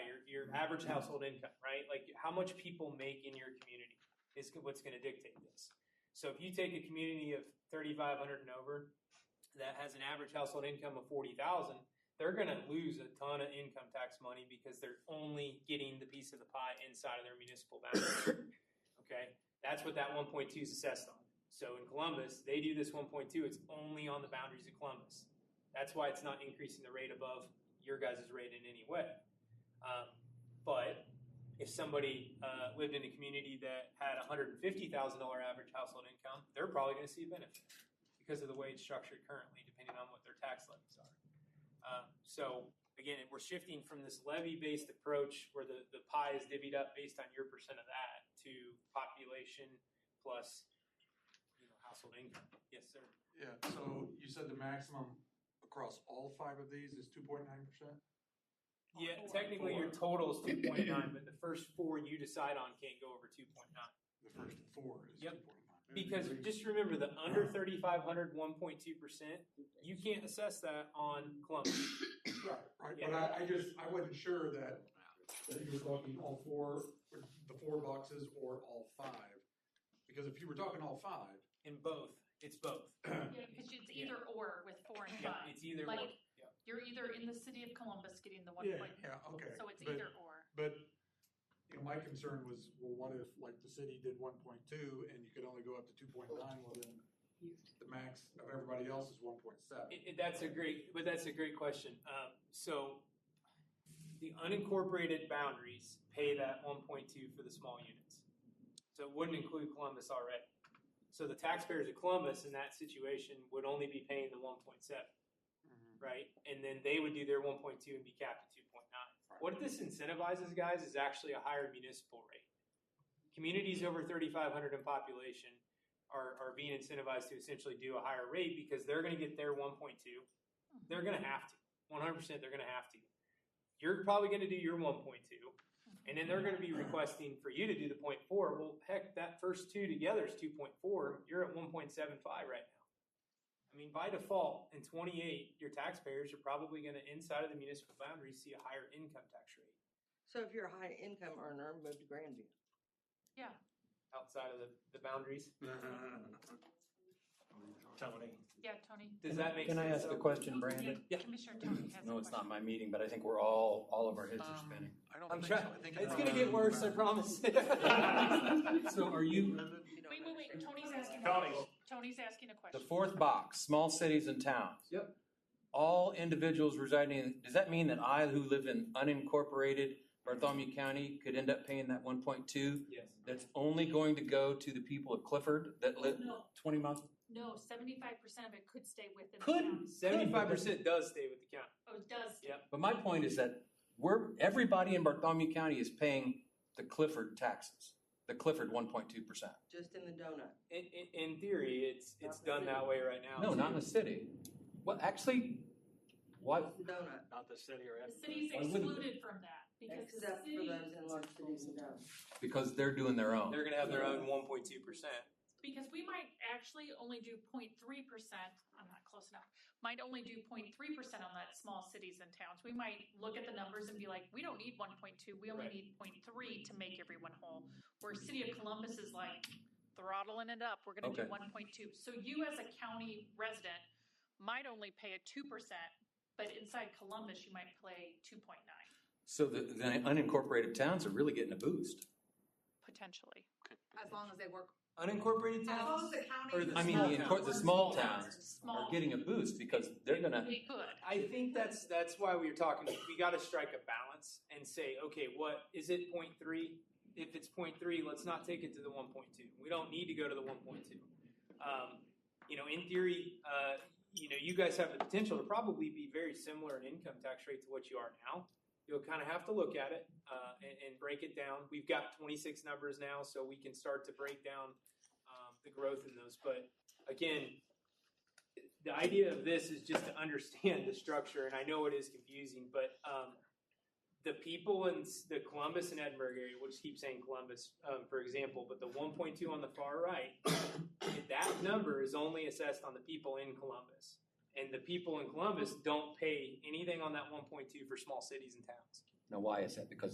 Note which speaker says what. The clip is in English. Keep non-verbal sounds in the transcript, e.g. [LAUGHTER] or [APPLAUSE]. Speaker 1: your average household income, right? Like how much people make in your community is what's going to dictate this. So if you take a community of 3,500 and over that has an average household income of 40,000, they're going to lose a ton of income tax money because they're only getting the piece of the pie inside of their municipal boundary. okay, that's what that 1.2 is assessed on. So in Columbus, they do this 1.2. It's only on the boundaries of Columbus. That's why it's not increasing the rate above your guys' rate in any way. Um, but if somebody uh, lived in a community that had $150,000 average household income, they're probably going to see a benefit because of the way it's structured currently, depending on what their tax levies are. Um, so again, we're shifting from this levy-based approach where the, the pie is divvied up based on your percent of that to population plus you know, household income. Yes, sir.
Speaker 2: Yeah, so you said the maximum across all five of these is two point nine percent?
Speaker 1: Yeah, technically your total is two point nine, but the first four you decide on can't go over two point nine.
Speaker 2: The first four is two
Speaker 1: Yep.
Speaker 2: point nine.
Speaker 1: Because just remember the under 3,500, 1.2 percent, you can't assess that on Columbus.
Speaker 2: Right, right, but
Speaker 1: Yeah.
Speaker 2: I, I just, I wasn't sure that, that you were talking all four, or the four boxes or all five. Because if you were talking all five,
Speaker 1: In both, it's both.
Speaker 3: Yeah, because it's either or with four and
Speaker 1: Yeah,
Speaker 3: five.
Speaker 1: it's either
Speaker 3: Like-
Speaker 1: one. Yeah.
Speaker 3: You're either in the city of Columbus getting the one
Speaker 2: yeah,
Speaker 3: point,
Speaker 2: yeah, okay.
Speaker 3: so it's
Speaker 2: but-
Speaker 3: either or.
Speaker 2: But, you know, my concern was, well, what if, like, the city did one point two and you could only go up to two point nine, well then, the max of everybody else is one point seven.
Speaker 1: It, it- that's a great, but that's a great question. Um, so the unincorporated boundaries pay that one point two for the small units. So it wouldn't include Columbus already. So the taxpayers of Columbus in that situation would only be paying the one point seven. right? And then they would do their one point two and be capped at two point nine. What this incentivizes, guys, is actually a higher municipal rate. Communities over thirty five hundred in population are, are being incentivized to essentially do a higher rate because they're gonna get their one point two. They're gonna have to, one hundred percent, they're gonna have to. You're probably gonna do your one point two, and then they're gonna be requesting for you to do the point four. Well, heck, that first two together is two point four, you're at one point seven five right now. I mean, by default, in twenty-eight, your taxpayers are probably gonna, inside of the municipal boundary, see a higher income tax rate
Speaker 4: So if you're a high income earner, move to Grandview.
Speaker 1: outside of the, the boundaries.
Speaker 2: Mm-hmm.
Speaker 5: Tony.
Speaker 3: Yeah, Tony?
Speaker 1: Does that make sense?
Speaker 6: Can I ask a question, Brandon?
Speaker 3: Yeah, Commissioner Tony has a question.
Speaker 6: No, it's not my meeting, but I think we're all, all of our heads are spinning.
Speaker 2: Um, I don't
Speaker 1: I'm trying, it's gonna get
Speaker 6: Um,
Speaker 1: worse, I promise. [LAUGHS] So are you,
Speaker 4: You don't
Speaker 3: Wait, wait, wait,
Speaker 4: understand.
Speaker 3: Tony's asking.
Speaker 5: Tony.
Speaker 3: Tony's asking a
Speaker 6: The
Speaker 3: question.
Speaker 6: fourth box, small cities and towns.
Speaker 1: Yep.
Speaker 6: All individuals residing, in does that mean that I who live in unincorporated Bartholomew County could end up paying that one point two?
Speaker 1: [LAUGHS] yes,
Speaker 6: That's only going to go to the people of Clifford that live
Speaker 3: No,
Speaker 6: twenty miles?
Speaker 3: no, seventy-five percent of it could stay within the
Speaker 6: Could.
Speaker 3: county.
Speaker 1: seventy-five percent does stay with the county.
Speaker 3: Oh, it does. stay.
Speaker 1: Yeah.
Speaker 6: But my point is that we're, everybody in Bartholomew County is paying the Clifford taxes, the Clifford one point two percent.
Speaker 4: Just in the donut.
Speaker 1: In, in, in theory, it's, it's done that way right now.
Speaker 6: No, not in
Speaker 1: too.
Speaker 6: the city. Well, actually, why,
Speaker 4: Just the donut,
Speaker 5: Not the city or.
Speaker 3: The city's
Speaker 6: Why wouldn't
Speaker 3: excluded
Speaker 6: it?
Speaker 3: from that because the
Speaker 4: except for
Speaker 3: city,
Speaker 4: those in large cities and towns.
Speaker 6: because they're doing their own.
Speaker 1: They're gonna have their own one point two percent.
Speaker 3: because we might actually only do 0.3 percent, I'm not close enough, might only do 0.3 percent on that small cities and towns. We might look at the numbers and be like, we don't need one point two, we only
Speaker 1: Right.
Speaker 3: need 0.3 to make everyone whole. Where City of Columbus is like throttling it up, we're gonna do
Speaker 6: Okay.
Speaker 3: one point two. So you as a county resident might only pay a two percent, but inside Columbus, you might pay two point nine,
Speaker 6: So the, the unincorporated towns are really getting a boost.
Speaker 3: potentially.
Speaker 7: As long as they work.
Speaker 1: Unincorporated
Speaker 7: As long as
Speaker 1: towns?
Speaker 7: the county.
Speaker 1: Or the
Speaker 6: I mean,
Speaker 1: small
Speaker 6: the,
Speaker 1: towns.
Speaker 6: incor- the small towns
Speaker 3: Small.
Speaker 6: are getting a boost because they're gonna,
Speaker 3: They could.
Speaker 1: I think that's that's why we were talking. We got to strike a balance and say, okay, what is it? Point three. If it's point three, let's not take it to the one point two. We don't need to go to the one point two. Um, you know, in theory, uh, you know, you guys have the potential to probably be very similar in income tax rate to what you are now. You'll kind of have to look at it uh, and, and break it down. We've got 26 numbers now, so we can start to break down um, the growth in those. But again, the idea of this is just to understand the structure, and I know it is confusing, but um, the people in s- the Columbus and Edinburgh area, we'll just keep saying Columbus, um, for example, but the 1.2 on the far right, that number is only assessed on the people in Columbus. And the people in Columbus don't pay anything on that 1.2 for small cities and towns.
Speaker 6: now why is that? Because